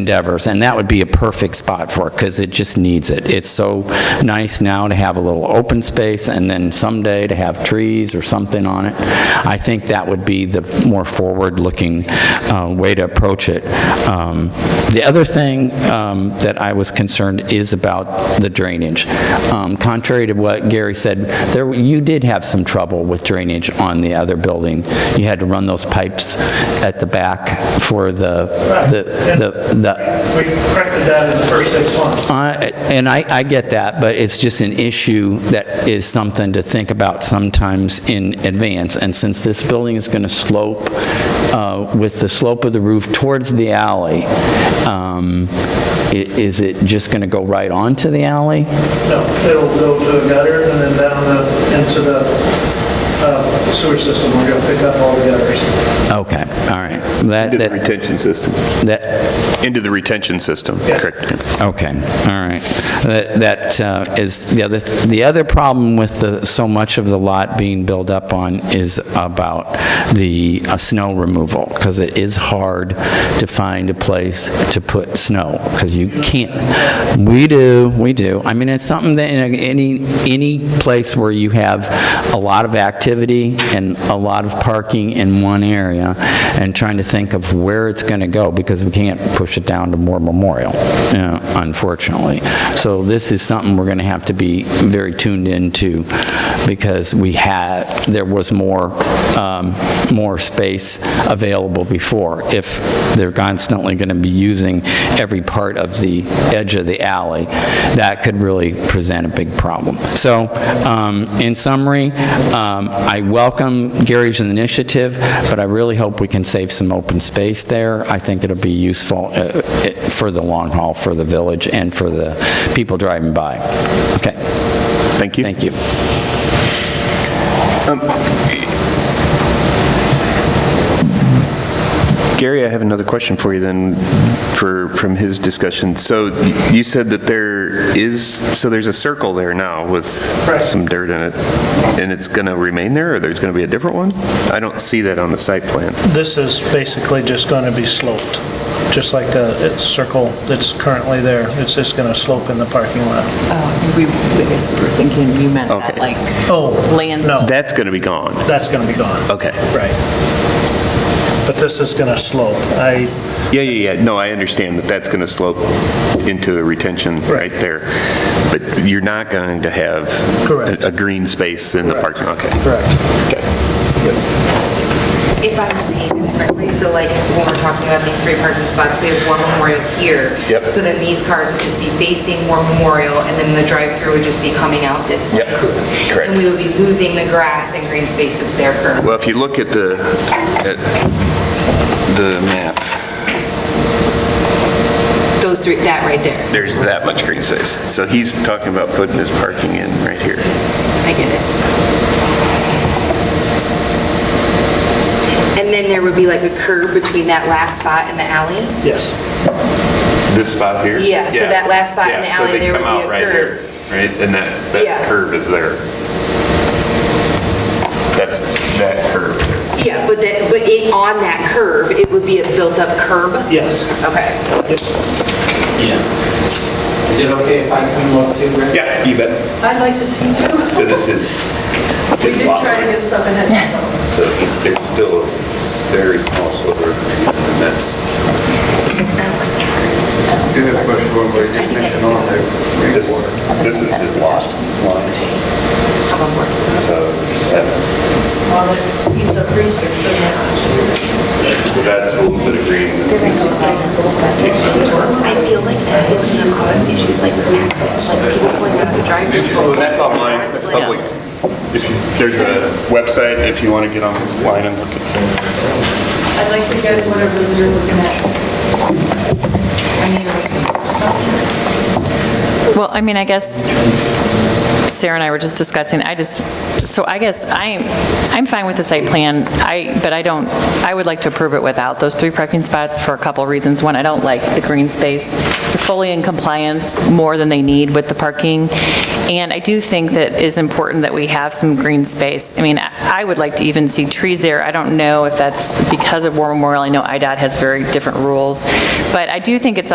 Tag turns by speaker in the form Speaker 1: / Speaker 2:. Speaker 1: endeavors, and that would be a perfect spot for it, because it just needs it. It's so nice now to have a little open space, and then someday to have trees or something on it. I think that would be the more forward-looking uh, way to approach it. Um, The other thing um, that I was concerned is about the drainage. Um, Contrary to what Gary said, there, you did have some trouble with drainage on the other building. You had to run those pipes at the back for the, the, the- the,
Speaker 2: We corrected that in the first six months.
Speaker 1: I- and I, I get that, but it's just an issue that is something to think about sometimes in advance. And since this building is going to slope uh, with the slope of the roof towards the alley, um, i- is it just going to go right onto the alley?
Speaker 2: No, it'll go to a gutter and then down the- into the uh, sewer system. We're going to pick up all the gutters.
Speaker 1: Okay, all right. That,
Speaker 3: Into the
Speaker 1: that,
Speaker 3: retention system.
Speaker 1: that,
Speaker 3: Into the retention system,
Speaker 2: Yes.
Speaker 3: correct.
Speaker 1: Okay, all right. That that, uh, is, the other, the other problem with the, so much of the lot being built up on is about the uh, snow removal, because it is hard to find a place to put snow, because you can't. We do, we do. I mean, it's something that, in a- any, any place where you have a lot of activity and a lot of parking in one area, and trying to think of where it's going to go, because we can't push it down to Moore Memorial uh, unfortunately. So this is something we're going to have to be very tuned into because we had, there was more, um, more space available before. If they're constantly going to be using every part of the edge of the alley, that could really present a big problem. So um, in summary, um, I welcome Gary's initiative, but I really hope we can save some open space there. I think it'll be useful uh, it- for the long haul, for the village, and for the people driving by. Okay,
Speaker 3: Thank you.
Speaker 1: thank you.
Speaker 3: Gary, I have another question for you then, for, from his discussion. So you said that there is, so there's a circle there now with
Speaker 2: Correct.
Speaker 3: some dirt in it, and it's going to remain there, or there's going to be a different one? I don't see that on the site plan.
Speaker 2: This is basically just going to be sloped, just like the it's circle that's currently there. It's just going to slope in the parking lot.
Speaker 4: Oh, we, we just were thinking you meant that
Speaker 3: Okay.
Speaker 4: like
Speaker 2: Oh,
Speaker 4: lands.
Speaker 2: no,
Speaker 3: That's going to be gone.
Speaker 2: that's going to be gone.
Speaker 3: Okay.
Speaker 2: Right. But this is going to slope. I,
Speaker 3: Yeah, yeah, yeah. No, I understand that that's going to slope into a retention right there. But you're not going to have
Speaker 2: Correct.
Speaker 3: a a green space in the parking, okay.
Speaker 2: correct.
Speaker 5: if I'm seeing this correctly, so like when we're talking about these three parking spots, we have War Memorial here.
Speaker 3: Yep.
Speaker 5: So then these cars would just be facing War Memorial, and then the drive-through would just be coming out this
Speaker 3: Yep,
Speaker 5: way.
Speaker 3: correct.
Speaker 5: And we would be losing the grass and green space that's there currently.
Speaker 3: Well, if you look at the, at the map,
Speaker 5: Those three, that right there.
Speaker 3: there's that much green space. So he's talking about putting his parking in right here.
Speaker 5: I get it. And then there would be like a curb between that last spot and the alley?
Speaker 2: Yes.
Speaker 6: This spot here?
Speaker 5: Yeah, so that last spot in
Speaker 6: Yeah,
Speaker 5: the
Speaker 6: so
Speaker 5: alley,
Speaker 6: they
Speaker 5: there would
Speaker 6: come
Speaker 5: be
Speaker 6: out
Speaker 5: a
Speaker 6: right
Speaker 5: curve.
Speaker 6: here, Right, and that,
Speaker 5: Yeah.
Speaker 6: that curve is there. That's that curve there.
Speaker 5: Yeah, but that, but it, on that curb, it would be a built-up curb?
Speaker 2: Yes.
Speaker 5: Okay.
Speaker 3: Mm-hmm.
Speaker 7: Is it okay if I come up too, Rick?
Speaker 6: Yeah, you bet.
Speaker 8: I'd like to see too.
Speaker 6: So this is,
Speaker 8: We did try to get stuff ahead of time.
Speaker 6: so it's- there's still a s- very small sliver, and that's,
Speaker 7: Do you have a question, or you just mentioned all the
Speaker 6: this, this is his lot line. So that,
Speaker 8: Well, it eats up green space, doesn't it?
Speaker 6: so that's a little bit of green.
Speaker 5: I feel like that is going to cause issues like accidents, like people pulling out of the drive-through.
Speaker 6: And that's online, it's public. If you, there's a website, if you want to get online and look at
Speaker 8: I'd like to get whatever you're looking at.
Speaker 9: Well, I mean, I guess Sarah and I were just discussing, I just, so I guess I, I'm fine with the site plan, I, but I don't, I would like to approve it without those three parking spots for a couple of reasons. One, I don't like the green space. They're fully in compliance more than they need with the parking, And I do think that it's important that we have some green space. I mean, I I would like to even see trees there. I don't know if that's because of War Memorial. I know IDOT has very different rules. But I do think it's